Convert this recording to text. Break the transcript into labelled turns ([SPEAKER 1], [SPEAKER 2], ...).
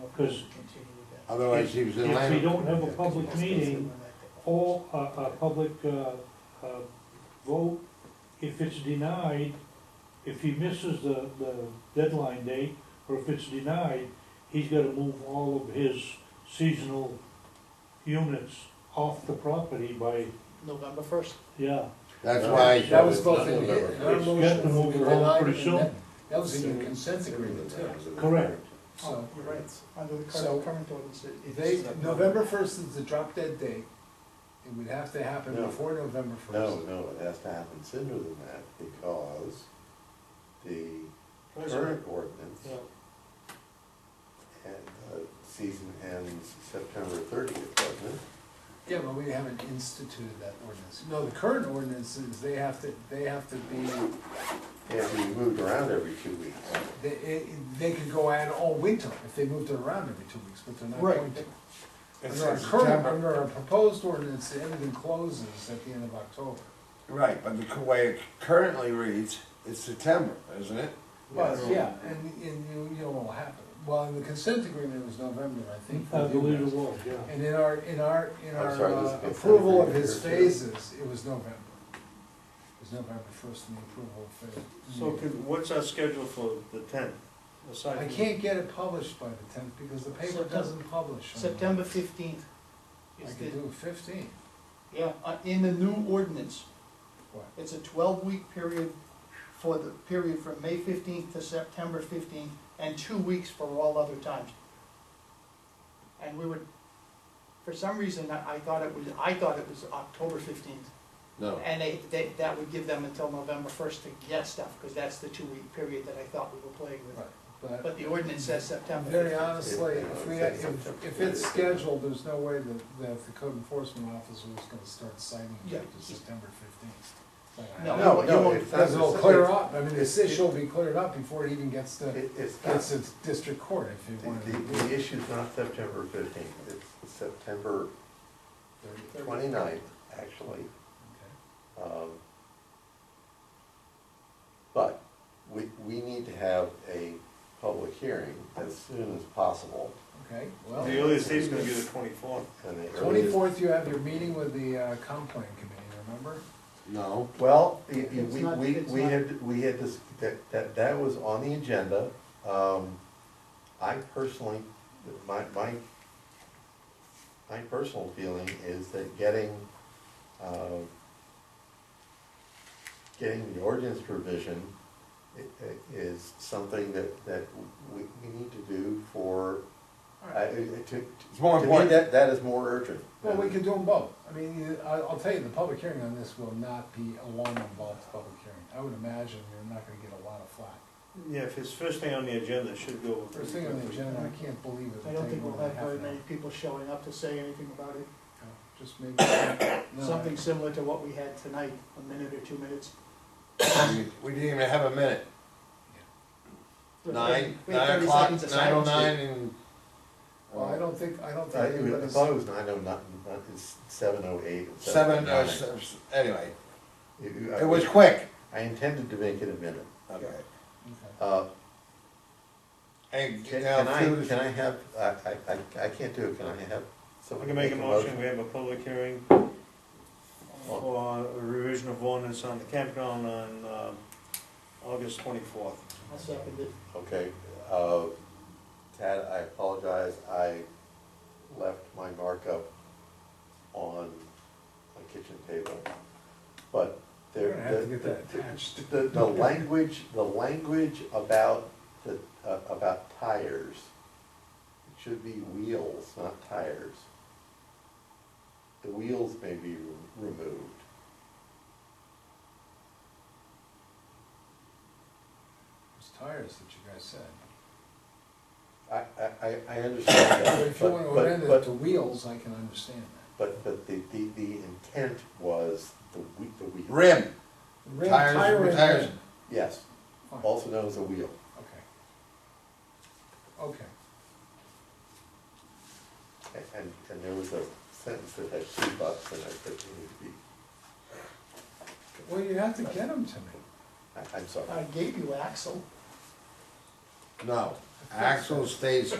[SPEAKER 1] because
[SPEAKER 2] Otherwise, he was in
[SPEAKER 1] If we
[SPEAKER 2] line.
[SPEAKER 1] don't have a public meeting or a, a public, uh, uh, vote, if it's denied, if he misses the, the deadline date, or if it's denied, he's gotta move all of his seasonal units off the property by,
[SPEAKER 3] November first.
[SPEAKER 1] yeah.
[SPEAKER 2] That's why.
[SPEAKER 4] That was both in,
[SPEAKER 2] November
[SPEAKER 4] in our
[SPEAKER 2] first.
[SPEAKER 1] It's got to
[SPEAKER 4] motion,
[SPEAKER 1] move
[SPEAKER 4] we
[SPEAKER 1] along
[SPEAKER 4] denied
[SPEAKER 1] pretty
[SPEAKER 4] it, and that,
[SPEAKER 1] soon.
[SPEAKER 4] that was in your consent agreement too.
[SPEAKER 1] Correct.
[SPEAKER 4] So,
[SPEAKER 3] Oh, you're right, under the
[SPEAKER 4] So-
[SPEAKER 3] current, current ordinance. it- it's-
[SPEAKER 4] they, November first is the drop dead date, it would have to happen
[SPEAKER 5] No.
[SPEAKER 4] before November
[SPEAKER 5] No,
[SPEAKER 4] first.
[SPEAKER 5] no, it has to happen sooner than that because the current ordinance
[SPEAKER 1] Yeah.
[SPEAKER 5] and uh, season ends September thirtieth, doesn't it?
[SPEAKER 4] Yeah, but we haven't instituted that ordinance. No, the current ordinance is they have to, they have to be,
[SPEAKER 5] And we moved around every two weeks.
[SPEAKER 4] they, it- they could go out all winter if they moved it around every two weeks, but they're not
[SPEAKER 3] Right.
[SPEAKER 4] going to.
[SPEAKER 6] It's
[SPEAKER 4] Under our
[SPEAKER 6] in
[SPEAKER 4] current,
[SPEAKER 6] September,
[SPEAKER 4] under our proposed ordinance, everything closes at the end of October.
[SPEAKER 6] right, but the way it currently reads, it's September, isn't it?
[SPEAKER 4] Well, yeah, and, and you, you know what'll happen. Well, in the consent agreement, it was November, I think. for
[SPEAKER 1] I
[SPEAKER 4] you
[SPEAKER 1] believe it
[SPEAKER 4] guys.
[SPEAKER 1] was, yeah.
[SPEAKER 4] And in our, in our, in
[SPEAKER 5] I'm
[SPEAKER 4] our
[SPEAKER 5] sorry, this
[SPEAKER 4] uh,
[SPEAKER 5] is consent
[SPEAKER 4] approval of
[SPEAKER 5] agreement
[SPEAKER 4] his
[SPEAKER 5] here, too.
[SPEAKER 4] phases, it was November. It was November first in the approval of phase.
[SPEAKER 7] So could, what's our schedule for the tenth?
[SPEAKER 4] I can't get it published by the tenth because the paper
[SPEAKER 3] September-
[SPEAKER 4] doesn't publish. on the-
[SPEAKER 3] September fifteenth
[SPEAKER 4] I
[SPEAKER 3] is
[SPEAKER 4] could
[SPEAKER 3] the,
[SPEAKER 4] do fifteen.
[SPEAKER 3] yeah, uh, in the new ordinance,
[SPEAKER 4] What?
[SPEAKER 3] it's a twelve-week period for the period from May fifteenth to September fifteenth, and two weeks for all other times. And we would, for some reason, I I thought it was, I thought it was October fifteenth.
[SPEAKER 6] No.
[SPEAKER 3] And they, they, that would give them until November first to get stuff, because that's the two-week period that I thought we were playing with.
[SPEAKER 4] Right, but
[SPEAKER 3] But the ordinance says September
[SPEAKER 4] very
[SPEAKER 3] 15th.
[SPEAKER 4] honestly, if we, had- if, if it's scheduled, there's no way that, that the code enforcement officer is gonna start citing it
[SPEAKER 3] Yeah.
[SPEAKER 4] after September fifteenth.
[SPEAKER 3] No,
[SPEAKER 5] No,
[SPEAKER 3] you
[SPEAKER 5] no,
[SPEAKER 3] won't-
[SPEAKER 5] it's not
[SPEAKER 4] Because it'll
[SPEAKER 5] the-
[SPEAKER 4] clear up, I mean, this
[SPEAKER 5] it's-
[SPEAKER 4] issue will be cleared up before it even gets to,
[SPEAKER 5] It- It's
[SPEAKER 4] gets
[SPEAKER 5] not,
[SPEAKER 4] to district court if you
[SPEAKER 5] the,
[SPEAKER 4] want
[SPEAKER 5] the-
[SPEAKER 4] to.
[SPEAKER 5] the issue's not September fifteenth, it's September twenty-ninth, actually. Um, But we, we need to have a public hearing as soon as possible.
[SPEAKER 4] Okay,
[SPEAKER 7] The
[SPEAKER 4] well,
[SPEAKER 7] earliest date's gonna be the twenty-fourth.
[SPEAKER 5] and the earliest-
[SPEAKER 4] twenty-fourth, you have your meeting with the, uh, comp plan committee, remember?
[SPEAKER 6] No,
[SPEAKER 5] Well, y- y-
[SPEAKER 3] It's
[SPEAKER 5] we,
[SPEAKER 3] not-
[SPEAKER 5] we,
[SPEAKER 3] it's
[SPEAKER 5] we
[SPEAKER 3] not-
[SPEAKER 5] had, we had this, that, that, that was on the agenda. Um, I personally, my, my, my personal feeling is that getting, uh, getting the ordinance provision i- i- is something that, that we, we need to do for,
[SPEAKER 3] All
[SPEAKER 5] I, I-
[SPEAKER 3] right.
[SPEAKER 5] to, to
[SPEAKER 6] it's more
[SPEAKER 5] me,
[SPEAKER 6] important.
[SPEAKER 5] that, that is more urgent.
[SPEAKER 4] Well, we can do them both. I mean, you- I- I'll tell you, the public hearing on this will not be a long involved public hearing. I would imagine you're not gonna get a lot of flack.
[SPEAKER 7] Yeah, if it's first thing on the agenda, it should go.
[SPEAKER 4] First thing on the agenda, I can't believe it.
[SPEAKER 3] I don't think we'll have very many
[SPEAKER 4] No,
[SPEAKER 3] people showing up to say anything about it.
[SPEAKER 4] Just maybe. no,
[SPEAKER 3] Something similar to what we had tonight, a minute or two minutes.
[SPEAKER 6] We- We didn't even have a minute.
[SPEAKER 3] We had
[SPEAKER 6] Nine,
[SPEAKER 3] thirty- we had
[SPEAKER 6] nine
[SPEAKER 3] 30
[SPEAKER 6] o'clock,
[SPEAKER 3] seconds of
[SPEAKER 6] nine oh
[SPEAKER 3] silence.
[SPEAKER 6] nine and.
[SPEAKER 4] Well, I don't think, I don't
[SPEAKER 5] I,
[SPEAKER 4] think
[SPEAKER 5] I
[SPEAKER 4] anybody's,
[SPEAKER 5] thought it was nine oh nine, it's seven oh eight.
[SPEAKER 6] Seven, uh, s- anyway,
[SPEAKER 5] You-
[SPEAKER 6] it was quick.
[SPEAKER 5] I intended to make it a minute.
[SPEAKER 6] Okay.
[SPEAKER 4] Okay.
[SPEAKER 5] Uh,
[SPEAKER 6] And
[SPEAKER 5] Can
[SPEAKER 6] now
[SPEAKER 5] can I,
[SPEAKER 6] food-
[SPEAKER 5] can I have, I, I, I- I can't do it, can I have
[SPEAKER 7] We
[SPEAKER 5] someone
[SPEAKER 7] can make a motion, Oh. we have a public hearing for a revision of ordinance on the campground on, um, August twenty-fourth.
[SPEAKER 3] I'll second it.
[SPEAKER 5] Okay, uh, Tad, I apologize, I left my markup on my kitchen table. But
[SPEAKER 4] We're
[SPEAKER 5] there.
[SPEAKER 4] gonna have to
[SPEAKER 5] the-
[SPEAKER 4] get that attached.
[SPEAKER 5] The, the language, the language about the, uh, about tires, it should be wheels, not tires. The wheels may be re- removed.
[SPEAKER 4] Those tires that you guys said.
[SPEAKER 5] I, I, I- I understand
[SPEAKER 4] But
[SPEAKER 5] that,
[SPEAKER 4] if you wanna
[SPEAKER 5] but,
[SPEAKER 4] amend
[SPEAKER 5] but,
[SPEAKER 4] it to
[SPEAKER 5] but,
[SPEAKER 4] wheels, I can understand that.
[SPEAKER 5] but, but the, the, the intent was the whe- the wheel.
[SPEAKER 6] Rim,
[SPEAKER 4] Rim,
[SPEAKER 6] Tires,
[SPEAKER 4] tire and
[SPEAKER 6] tires.
[SPEAKER 4] rim.
[SPEAKER 5] Yes,
[SPEAKER 4] Fine.
[SPEAKER 5] also known as a wheel.
[SPEAKER 4] Okay. Okay.
[SPEAKER 5] A- And, and there was a sentence that had two bucks and I said, it would be,
[SPEAKER 4] Well, you have to get them to me.
[SPEAKER 5] I, I'm sorry.
[SPEAKER 3] I gave you Axel.
[SPEAKER 6] no, axle stays